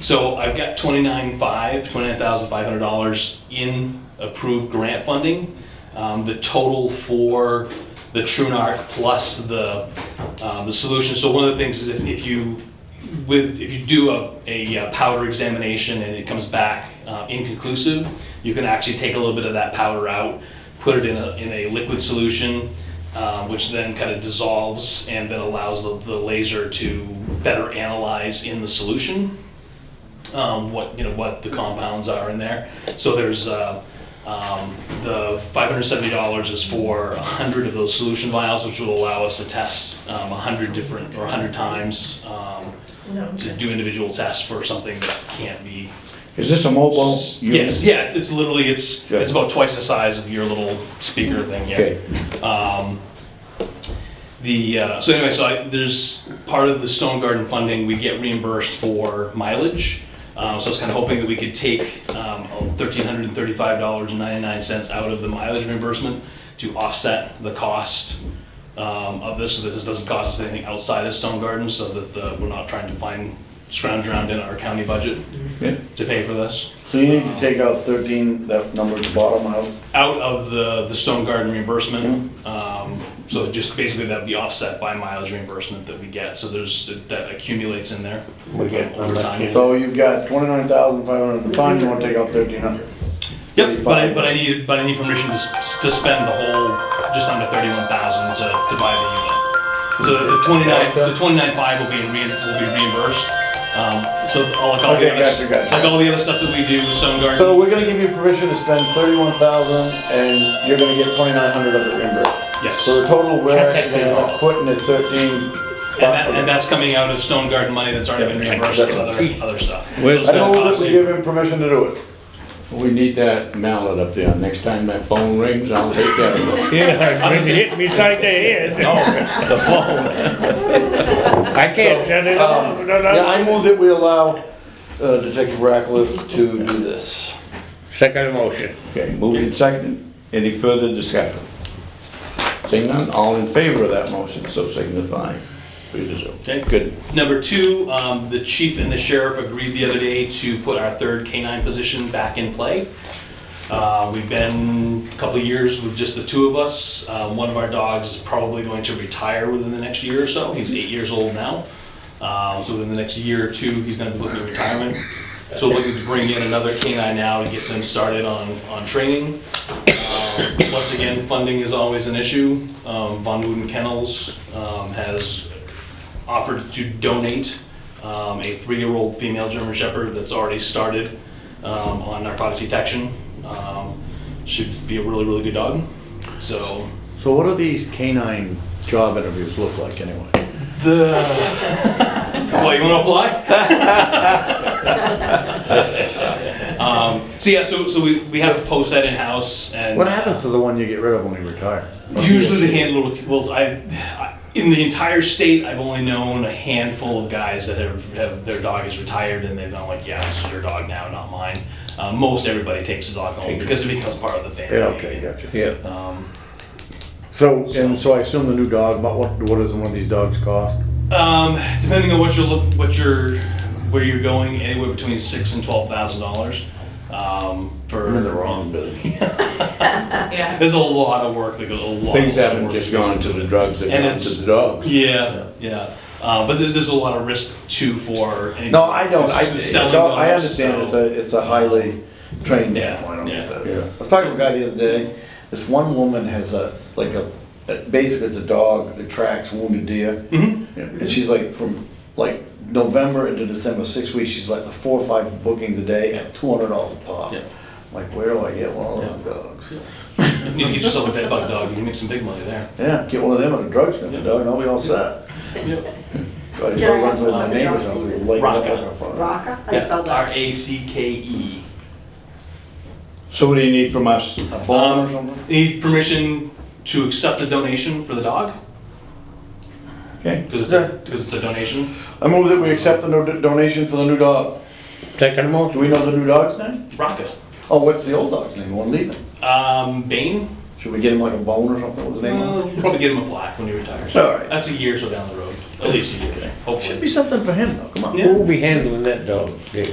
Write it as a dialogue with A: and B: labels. A: So I've got twenty-nine five, twenty-nine thousand five hundred dollars in approved grant funding. Um, the total for the TrueNarc plus the, um, the solution. So one of the things is if, if you, with, if you do a, a uh, powder examination and it comes back uh, inconclusive, you can actually take a little bit of that powder out, put it in a, in a liquid solution, um, which then kind of dissolves and then allows the, the laser to better analyze in the solution um, what you know what the compounds are in there. So there's uh, um, the five hundred seventy dollars is for hundred of those solution vials, which will allow us to test um, hundred different or hundred times um,
B: No.
A: to do individual tests for something that can't be.
C: Is this a mobile unit?
A: Yes, yeah, it's, it's literally it's
C: Yeah.
A: it's about twice the size of your little speaker thing. Yeah.
C: Okay,
A: Um, the, uh, so anyway, so I, there's part of the Stone Garden funding, we get reimbursed for mileage. Um, so I was kind of hoping that we could take, um, thirteen hundred and thirty-five dollars and ninety-nine cents out of the mileage reimbursement to offset the cost, um, of this, so that this doesn't cost us anything outside of Stone Garden, so that, uh, we're not trying to find, scrounge around in our county budget
C: Yeah.
A: to pay for this.
D: So you need to take out thirteen, that number at the bottom out.
A: out of the, the Stone Garden reimbursement. Um, so just basically that'd be offset by mileage reimbursement that we get, so there's, that accumulates in there.
E: We get-
A: Over time.
D: So you've got twenty-nine thousand five hundred in the fund, you wanna take out thirteen hundred.
A: Yep, but I, but I need, but I need permission to, s- to spend the whole, just under thirty-one thousand to, to buy the unit. So the twenty-nine, the twenty-nine five will be, rein- will be reimbursed. Um, so all, like all the
D: Okay,
A: other,
D: gotcha, gotcha.
A: like all the other stuff that we do, with Stone Garden.
D: So we're gonna give you permission to spend thirty-one thousand, and you're gonna get twenty-nine hundred of it reimbursed.
A: Yes.
D: So the total we're
E: Check that
D: actually gonna end up putting is thirteen.
A: And that, and that's coming out of Stone Garden money that's already been reimbursed for
D: That's
A: other, other stuff.
C: Where's
A: So
D: I
A: it's
D: don't
A: not
D: think
A: cost
D: we
A: saving.
D: give him permission to do it.
C: we need that mallet up there, next time that phone rings, I'll take that.
E: Yeah, when you hit me inside the head.
D: The phone.
C: I can't.
E: Shut it off.
D: Um,
E: No, no,
D: yeah,
E: no.
D: I move that we allow uh, Detective Rackliff to do this.
E: Second motion.
C: Okay, moved and seconded, any further discussion? Seeing none, all in favor of that motion, so signify. Three to zero.
A: Okay.
C: Good,
A: Number two, um, the chief and the sheriff agreed the other day to put our third K-9 position back in play. Uh, We've been a couple of years with just the two of us. Uh, One of our dogs is probably going to retire within the next year or so. He's eight years old now. Uh, So within the next year or two, he's gonna be looking at retirement. So we're looking to bring in another K-9 now to get them started on, on training. Um, Once again, funding is always an issue. Um, Von Wooten Kennels um, has offered to donate um, a three-year-old female German Shepherd that's already started um, on narcotics detection. Um, Should be a really, really good dog. So
D: So what do these canine job interviews look like anyway?
A: the, what, you want to apply? Um, So yeah, so, so we, we have to post that in-house and.
D: What happens to the one you get rid of when you retire?
A: Usually the handler will, well, I, I- in the entire state, I've only known a handful of guys that have, have, their dog is retired and they've been like, yeah, this is your dog now, not mine. Uh, most everybody takes the dog home because it becomes part of the family.
D: Yeah, okay, gotcha.
C: yeah.
A: Um,
D: So, and so I assume the new dog, but what, what does one of these dogs cost?
A: um, depending on what you're look, what you're, where you're going, anywhere between six and twelve thousand dollars, um, for.
D: I'm in the wrong building.
B: Yeah.
A: There's a lot of work that goes, a lot.
C: Things
A: a lot of
C: haven't
A: work
C: just
A: that goes
C: gone
A: into
C: to
A: it.
C: the drugs, they've
A: And
C: gone to
A: it's-
C: the dogs.
A: Yeah, yeah. Uh, but there's, there's a lot of risk too for. any-
D: No, I don't, I,
A: who's selling
D: no, I
A: dogs,
D: understand it's
A: so-
D: a, it's a highly trained
A: Yeah,
D: animal, I don't get
A: yeah.
D: that.
C: Yeah.
D: I was talking to a guy the other day, this one woman has a, like a, a- basically it's a dog that tracks wounded deer.
A: Mhm.
D: And she's like, from like November into December, six weeks, she's like the four or five bookings a day at two hundred dollars a pop.
A: Yeah.
D: I'm Like, where do I get one of those dogs?
A: You need to get yourself a bed bug dog. You can make some big money there.
D: Yeah, get one of them at a drugstore,
A: Yeah.
D: dog, and I'll be all set. Go ahead and
B: Yeah,
D: go
B: I
D: run with my
B: have one.
D: neighbors, I'll be lighting up
A: Rocca.
D: like a fire.
B: Raka, I spelled
A: R
B: that.
A: A C K E.
C: So what do you need from us?
D: A
B: Um,
D: bomb or something?
A: Um, Need permission to accept the donation for the dog
C: Okay,
A: because it's a, because it's a donation.
D: I move that we accept the no- donation for the new dog.
E: Second
D: Do
E: motion.
D: we know the new dog's name?
A: Rocco,
D: Oh, what's the old dog's name? One leaving.
A: um, Bane.
D: Should we get him like a bone or something? What was the name? of it?
A: Well, you'll probably get him a plaque when he retires.
D: All right.
A: That's a year or so down the road, at least a year.
D: Should be
A: Hopefully.
D: something for him though. Come on.
A: Yeah.
E: Who'll be handling that dog? Yeah.